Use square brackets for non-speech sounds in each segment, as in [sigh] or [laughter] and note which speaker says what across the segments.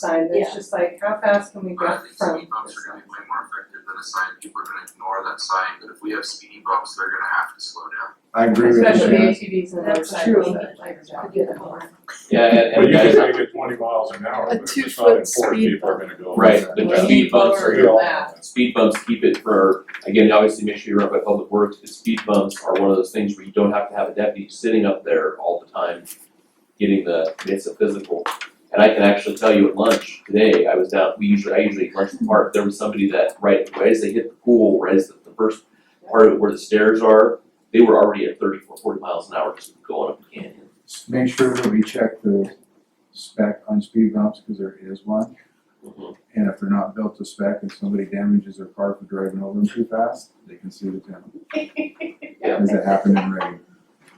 Speaker 1: side, it's
Speaker 2: Yeah.
Speaker 1: just like, how fast can we
Speaker 3: But I
Speaker 1: get
Speaker 3: think
Speaker 1: from
Speaker 3: speed bumps are gonna be way more effective than a sign, people are gonna ignore that sign, but if we have speed bumps, they're gonna have to slow down.
Speaker 4: I agree with you.
Speaker 1: especially
Speaker 4: Jen.
Speaker 1: ATVs and
Speaker 2: That's
Speaker 1: motorcycles
Speaker 2: true.
Speaker 1: that like jog in the corner.
Speaker 5: Yeah, and,
Speaker 6: But
Speaker 5: and
Speaker 6: you
Speaker 5: guys,
Speaker 6: can make it twenty miles an hour,
Speaker 2: A
Speaker 6: but if it's not
Speaker 2: two-foot
Speaker 6: enforced,
Speaker 2: speed
Speaker 6: people are gonna go. over
Speaker 5: right,
Speaker 6: that.
Speaker 5: the
Speaker 2: Well,
Speaker 5: speed bumps
Speaker 2: lower
Speaker 5: are
Speaker 6: We all-
Speaker 5: speed bumps keep it for, again, obviously make sure you're up by public works, but speed bumps are one of those things where you don't have to have a deputy sitting up there all the time getting the, it's a physical. And I can actually tell you at lunch today, I was down, we usually, I usually lunch in the park, there was somebody that, right, right as they hit the pool, right as the, the first part of it where the stairs are, they were already at 30 or 40 miles an hour just going up the canyon.
Speaker 4: Make sure that we check the spec on speed bumps, cause there is one,
Speaker 5: Mm-hmm.
Speaker 4: and if they're not built to spec and somebody damages their car for driving over them too fast, they can sue the town.
Speaker 5: Yeah.
Speaker 4: Cause it happened in Reading.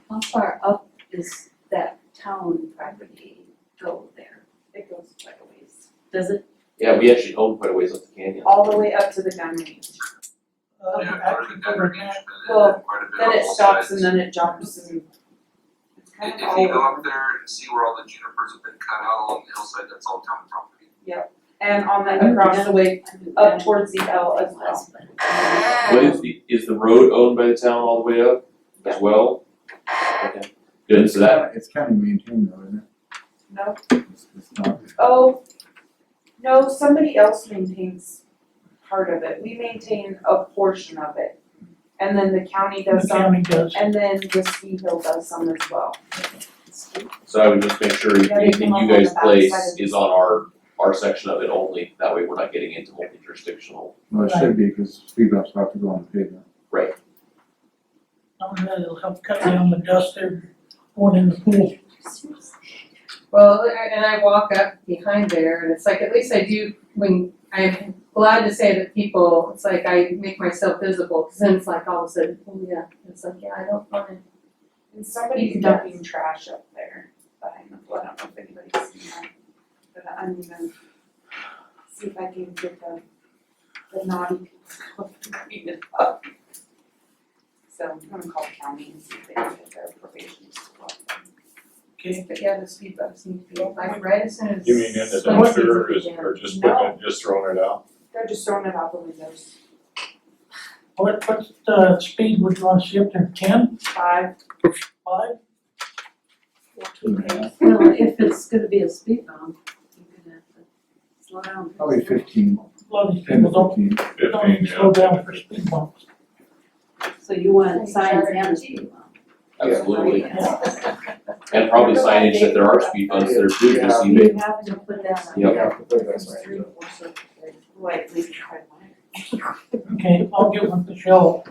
Speaker 2: How far up is that town property go there?
Speaker 1: It goes quite a ways,
Speaker 2: Does it?
Speaker 5: Yeah, we actually own quite a ways up the canyon.
Speaker 1: all the way up to the gun range.
Speaker 3: Oh, Yeah, part of the degradation,
Speaker 1: Well,
Speaker 3: and then quite a bit
Speaker 1: Then
Speaker 3: on
Speaker 1: it
Speaker 3: both
Speaker 1: stops and
Speaker 3: sides.
Speaker 1: then it jumps and it's kind of
Speaker 3: If, if
Speaker 1: all
Speaker 3: you go
Speaker 1: over.
Speaker 3: up there and see where all the junipers have been cut out along the hillside, that's all town property.
Speaker 1: And on that across the way, up towards the L as well.
Speaker 5: What is the, is the road owned by the town all the way up as well? Okay, good, so that,
Speaker 4: It's county maintained though, isn't
Speaker 1: No,
Speaker 4: it? It's, it's not,
Speaker 1: oh, no, somebody else maintains part of it, we maintain a portion of it. And then the county does
Speaker 7: The
Speaker 1: some,
Speaker 7: county does.
Speaker 1: and then the ski hill does some as well.
Speaker 5: so I would just make sure
Speaker 1: Yeah, they
Speaker 5: anything
Speaker 1: come
Speaker 5: you
Speaker 1: up on
Speaker 5: guys
Speaker 1: the
Speaker 5: place
Speaker 1: backside of-
Speaker 5: is on our, our section of it only, that way we're not getting into multi-jurisdictional.
Speaker 4: well, it should be, cause speed bumps have to go on the pavement.
Speaker 7: Um, that'll help cut down the dust there going in the pool.
Speaker 8: Well, I- and I walk up behind there and it's like, at least I do, when, I'm glad to say that people, it's like I make myself visible, cause then it's like all of a sudden, oh yeah, it's like, yeah, I don't wanna.
Speaker 1: And somebody's dumping trash up there behind the flood, I don't know if anybody's seen that. But I'm gonna see if I can get the, the naughty people to clean it up. So I'm gonna call county and see if they can get their probation to go up.
Speaker 7: Okay,
Speaker 8: But yeah, the speed bumps need to be, like, right as soon as.
Speaker 6: You mean in the
Speaker 8: Like, it's
Speaker 6: dumpster or is,
Speaker 8: easy to
Speaker 6: or just putting it, just throwing it out?
Speaker 1: They're just throwing it out the windows,
Speaker 7: what, what's the speed would you want to see up there, ten,
Speaker 1: five,
Speaker 7: five?
Speaker 4: Two and a half,
Speaker 2: Well, if it's gonna be a speed bump, you're gonna have to slow down.
Speaker 4: Probably fifteen,
Speaker 7: A lot of these
Speaker 4: ten
Speaker 7: people
Speaker 4: to
Speaker 7: don't,
Speaker 4: fifteen.
Speaker 7: don't even
Speaker 6: Fifteen,
Speaker 7: slow down
Speaker 6: yeah.
Speaker 7: for speed bumps.
Speaker 2: So you want signs and a speed bump.
Speaker 5: Absolutely,
Speaker 7: Yeah.
Speaker 5: and probably signage that there are speed bumps there too, just even,
Speaker 2: You have to put that on.
Speaker 5: Yep.
Speaker 4: Yeah, put it that
Speaker 1: there's
Speaker 4: way.
Speaker 1: three, or four circles, like, like, we tried one.
Speaker 7: Okay, I'll give them the show.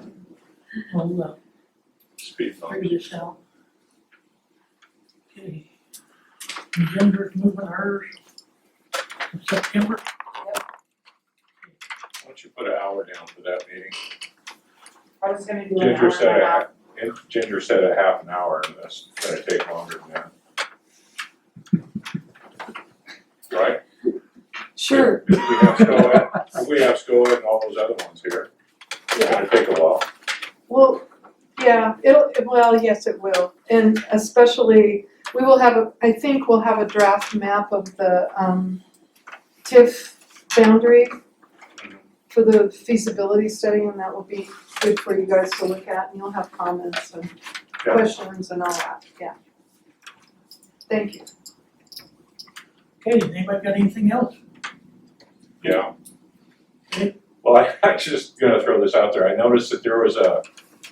Speaker 7: We'll, uh,
Speaker 6: Speed bump.
Speaker 7: figure this out. Okay. Genders moving hers in September.
Speaker 6: Why don't you put an hour down for that meeting?
Speaker 1: [laughs] I was gonna do an hour
Speaker 6: Ginger
Speaker 1: and
Speaker 6: said
Speaker 1: a
Speaker 6: a
Speaker 1: half,
Speaker 6: half, and Ginger said a half an hour and that's gonna take longer than that. Right?
Speaker 2: Sure,
Speaker 6: If we have SCOA, if we have SCOA and all those other ones here, it's gonna take a while.
Speaker 9: Well, yeah, it'll, well, yes, it will, and especially, we will have, a. I think we'll have a draft map of the, um, TIF boundary for the feasibility study, and that will be good for you guys to look at, and you'll have comments and
Speaker 6: Yeah.
Speaker 9: questions and all that, yeah. Thank you.
Speaker 7: Okay, anybody got anything else?
Speaker 6: Yeah. Well, I, [laughs] I'm just gonna throw this out there. I noticed that there was a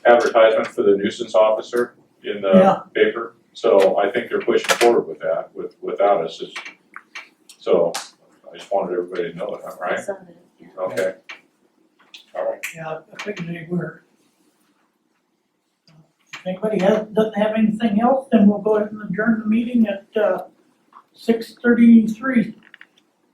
Speaker 6: advertisement for the nuisance officer in
Speaker 7: Yeah.
Speaker 6: the paper. So I think they're pushing forward with that, with, without us. It's- So I just wanted everybody to know that, right?
Speaker 2: some of it, yeah.
Speaker 6: Okay. All right.
Speaker 7: Yeah, I figured they were. If anybody has, doesn't have anything else, then we'll go ahead and adjourn the meeting at, uh, six thirty-three.